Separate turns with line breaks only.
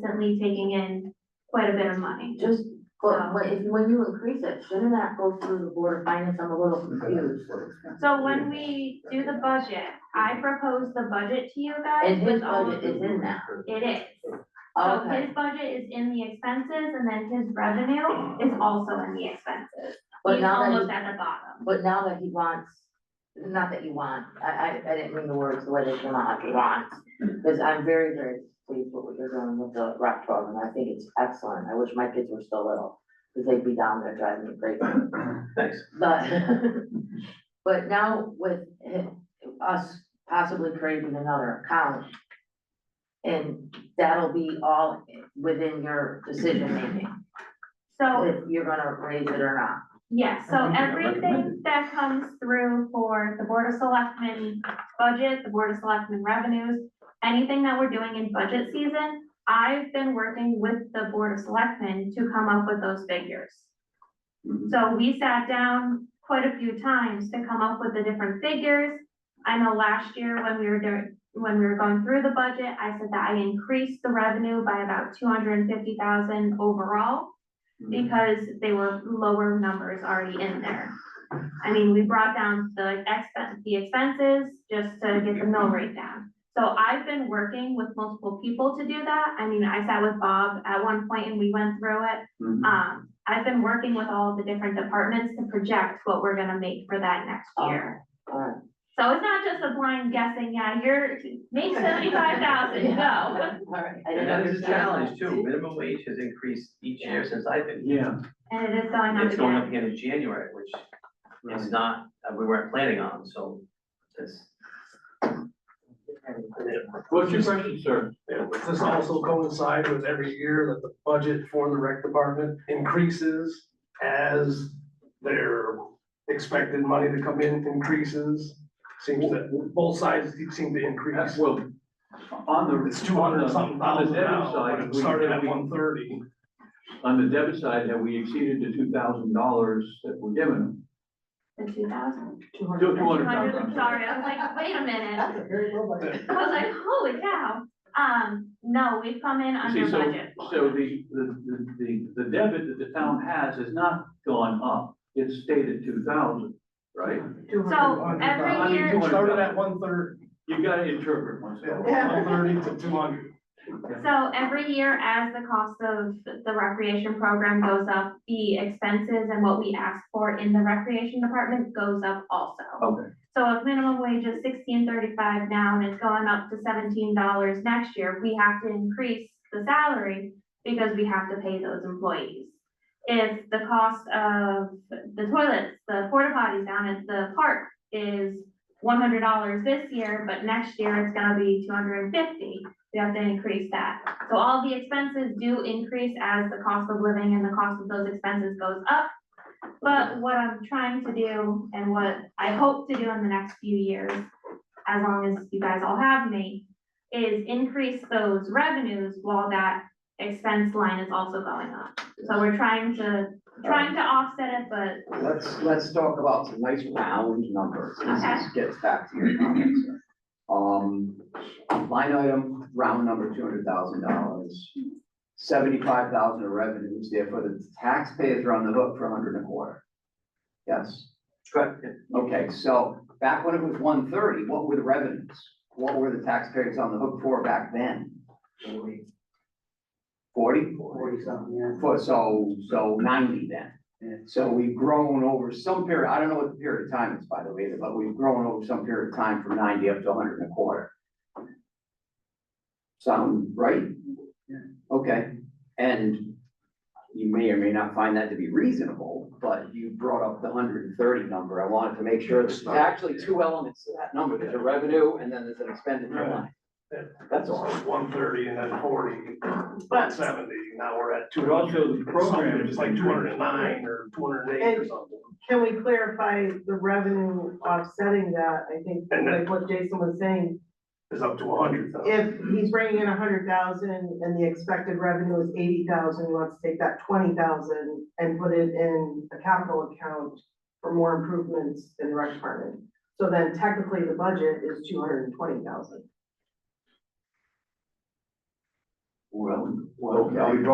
currently taking in quite a bit of money.
Just,
Um,
but when, if, when you increase it, shouldn't that go through the board of finance? I'm a little confused.
So when we do the budget, I propose the budget to you guys
And his
with all
budget
of.
is in that,
It is, so
okay,
his budget is in the expenses and then his revenue is also in the expenses.
but
He's
now that,
almost at the
he-
bottom.
but now that he wants, not that you want, I, I, I didn't mean the words, let it come out, he wants. Cause I'm very, very pleased with what you're doing with the rec program, I think it's excellent, I wish my kids were still little, cause they'd be down there driving me crazy.
Thanks.
But, but now with hi- us possibly creating another account. And that'll be all within your decision making,
So
if you're gonna raise it or not.
Yes. so
Mhm.
everything that comes through for the Board of Selectmen budget, the Board of Selectmen revenues, anything that we're doing in budget season, I've been working with the Board of Selectmen to come up with those figures.
Mm-hmm.
So we sat down quite a few times to come up with the different figures. I know last year when we were doing, when we were going through the budget, I said that I increased the revenue by about two hundred and fifty thousand overall because they were lower numbers already in there. I mean, we brought down the expense, the expenses just to get the mill rate down. So I've been working with multiple people to do that. I mean, I sat with Bob at one point and we went through it.
Mm-hmm.
Um, I've been working with all the different departments to project what we're gonna make for that next
Oh.
year.
Alright,
So it's not just a blind guessing, yeah, you're, make seventy-five thousand, go.
alright, I
And
didn't
that is a
understand.
challenge too, minimum wage has increased each year since I've been here.
Yeah.
And it is going up
It's going up
again.
again in January, which is not, uh, we weren't planning on, so it's.
What's your question, sir? Does this also coincide with every year that the budget for the rec department increases as their expected money to come in increases? Seems that both sides seem to increase.
Well, on the,
It's two hundred
on
something
the- on the
thousand
debit
now,
side,
but it
we-
started at
we-
one thirty.
on the debit side, have we exceeded the two thousand dollars that were given?
The two thousand. Two
Two hundred
hundred, I'm
thousand.
sorry, I was like, wait a minute.
That's a very low budget.
I was like, holy cow, um, no, we've come in under
See, so-
budget.
So the, the, the, the debit that the town has has not gone up, it's stayed at two thousand, right?
So
I
every
mean,
year,
you-
It started at one thirty,
You gotta interpret once. in a while.
one thirty to two hundred.
so every year as the cost of the recreation program goes up, the expenses and what we ask for in the recreation department goes up also.
Okay.
So if minimum wage is sixteen thirty-five now and it's going up to seventeen dollars next year, we have to increase the salary because we have to pay those employees. If the cost of the toilets, the porta potties down at the park is one hundred dollars this year, but next year it's gonna be two hundred and fifty, we have to increase that. So all the expenses do increase as the cost of living and the cost of those expenses goes up. But what I'm trying to do and what I hope to do in the next few years, as long as you guys all have me, is increase those revenues while that expense line is also going up. So we're trying to, trying to offset it, but
Let's, let's talk about some nice round numbers. This is- gets back to your comments. sir. Um, line item, round number, two hundred thousand dollars. Seventy-five thousand of revenues, therefore the taxpayers are on the hook for a hundred and a quarter. Yes,
Correct,
okay, so back when it was one thirty, what were the revenues? What were the taxpayers on the hook for back then? Forty?
Forty something, yeah.
For, so, so ninety then. So we've grown over some period, I don't know what the period of time is, by the way, but we've grown over some period of time from ninety up to hundred and a quarter. Sound right?
Yeah.
Okay, and you may or may not find that to be reasonable, but you brought up the hundred and thirty number. I wanted to make sure there's actually two elements to that number. There's a revenue and then there's an expenditure
Right.
line.
Yeah.
That's all.
One thirty and then forty,
But-
seventy, now we're at two
But
hundred.
also the program
It's
is
like two hundred and nine or two hundred and eight or something.
Can we clarify the revenue offsetting that? I think,
And that-
like what Jason was saying,
It's up to a hundred thousand.
if he's bringing in a hundred thousand and the expected revenue is eighty thousand, he wants to take that twenty thousand and put it in a capital account for more improvements in the rec department. So then technically the budget is two hundred and twenty thousand.
Well,
Okay.